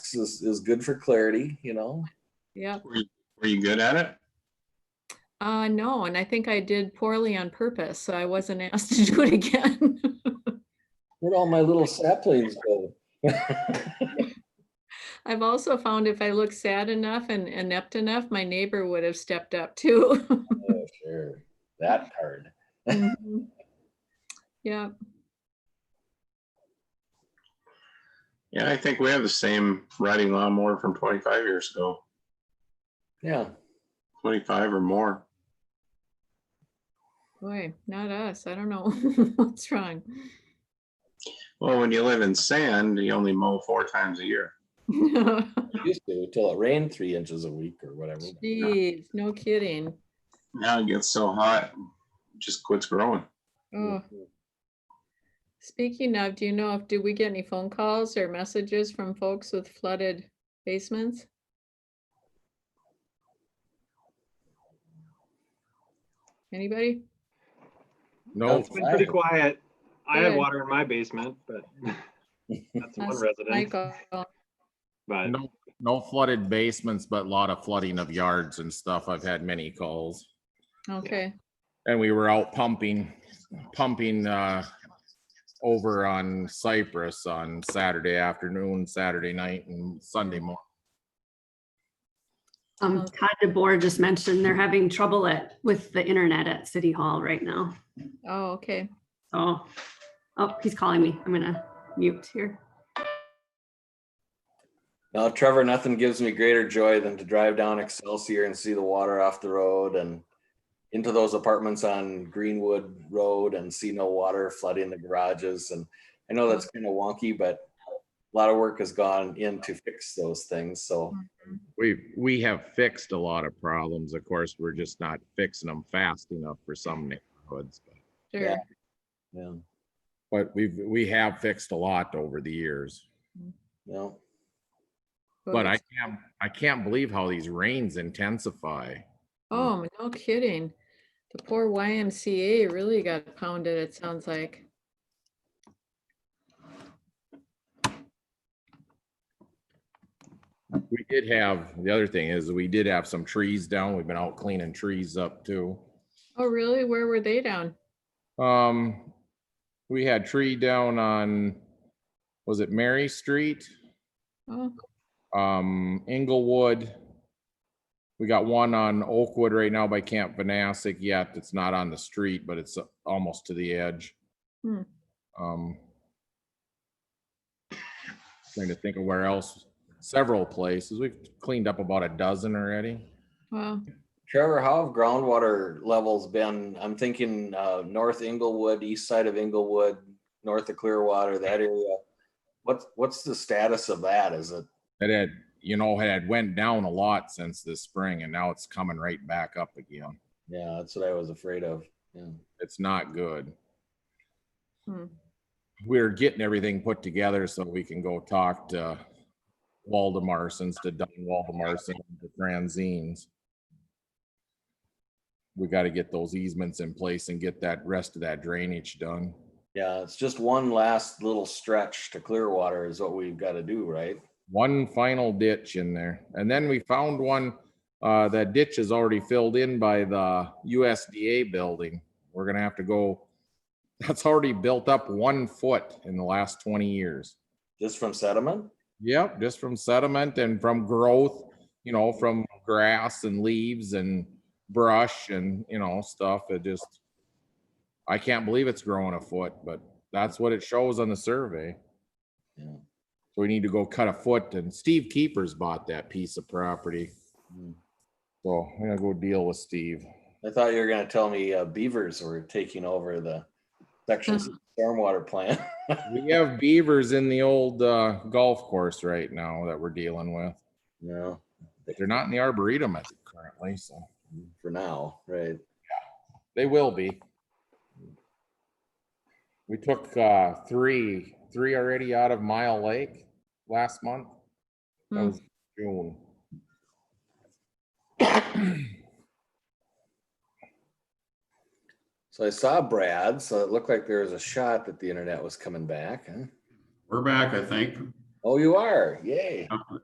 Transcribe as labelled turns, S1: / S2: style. S1: works is, is good for clarity, you know?
S2: Yeah,
S3: Were you- were you good at it?
S2: uh, no, and I think I did poorly on purpose, so I wasn't asked to do it again.
S1: Where'd all my little saplings go?
S2: I've also found if I look sad enough and inept enough, my neighbor would have stepped up too.
S1: Oh, Sure, that card.
S2: Mhm. Yeah,
S3: Yeah, I think we have the same riding lawnmower from twenty-five years ago,
S1: Yeah,
S3: twenty-five or more.
S2: boy, not us. I don't know what's wrong.
S3: Well, when you live in sand, you only mow four times a year.
S1: it used to till it rained three inches a week or whatever.
S2: Jeez, no kidding.
S3: Now it gets so hot, it just quits growing.
S2: Oh, speaking of, do you know if, did we get any phone calls or messages from folks with flooded basements? Anybody?
S1: No,
S4: It's been pretty quiet. I
S2: Good.
S4: had water in my basement, but that's one
S2: Ask
S4: resident,
S2: Michael.
S4: but
S5: No, no flooded basements, but a lot of flooding of yards and stuff. I've had many calls.
S2: Okay,
S5: And we were out pumping, pumping, uh, over on Cypress on Saturday afternoon, Saturday night and Sunday morning.
S6: Um, Todd DeBoer just mentioned they're having trouble at, with the internet at City Hall right now.
S2: oh, okay.
S6: So, oh, he's calling me. I'm gonna mute here.
S1: Now, Trevor, nothing gives me greater joy than to drive down Excelsior and see the water off the road and into those apartments on Greenwood Road and see no water flooding the garages. And I know that's kind of wonky, but a lot of work has gone in to fix those things. So
S5: We, we have fixed a lot of problems. Of course, we're just not fixing them fast enough for some neighborhoods. but-
S2: Sure.
S1: yeah,
S5: But we've, we have fixed a lot over the years.
S1: yeah.
S5: But I can't, I can't believe how these rains intensify.
S2: Oh, no kidding. The poor YMCA really got pounded, it sounds like.
S5: We did have, the other thing is, we did have some trees down. We've been out cleaning trees up too.
S2: Oh, really? Where were they down?
S5: Um, we had tree down on, was it Mary Street?
S2: Oh,
S5: Um, Inglewood. We got one on Oakwood right now by Camp Vanastic yet. It's not on the street, but it's almost to the edge.
S2: Hmm.
S5: Um. Trying to think of where else, several places. We've cleaned up about a dozen already.
S2: wow.
S1: Trevor, how have groundwater levels been? I'm thinking uh, North Inglewood, east side of Inglewood, north of Clearwater, that area. What's what's the status of that? Is it
S5: It had, you know, it had went down a lot since this spring and now it's coming right back up again.
S1: Yeah, that's what I was afraid of. Yeah.
S5: It's not good.
S2: Hmm.
S5: We're getting everything put together so we can go talk to Waldemarsons, to Don Waldemarsons, to Franzines. We got to get those easements in place and get that rest of that drainage done.
S1: Yeah, it's just one last little stretch to Clearwater is what we've got to do, right?
S5: one final ditch in there. And then we found one, uh, that ditch is already filled in by the USDA building. We're gonna have to go, that's already built up one foot in the last twenty years.
S1: Just from sediment?
S5: Yep, just from sediment and from growth, you know, from grass and leaves and brush and, you know, stuff. It just, I can't believe it's growing a foot, but that's what it shows on the survey.
S1: Yeah.
S5: So we need to go cut a foot and Steve Keepers bought that piece of property.
S1: Hmm.
S5: So I'm gonna go deal with Steve.
S1: I thought you were gonna tell me uh, beavers were taking over the section six stormwater plant.
S5: We have beavers in the old uh, golf course right now that we're dealing with.
S1: No,
S5: They're not in the arboretum at- currently, so
S1: for now, right?
S5: they will be. We took uh, three, three already out of Mile Lake last month. That
S2: Hmm.
S5: was June.
S1: So I saw Brad, so it looked like there was a shot that the internet was coming back. huh?
S7: We're back, I think.
S1: Oh, you are? Yay.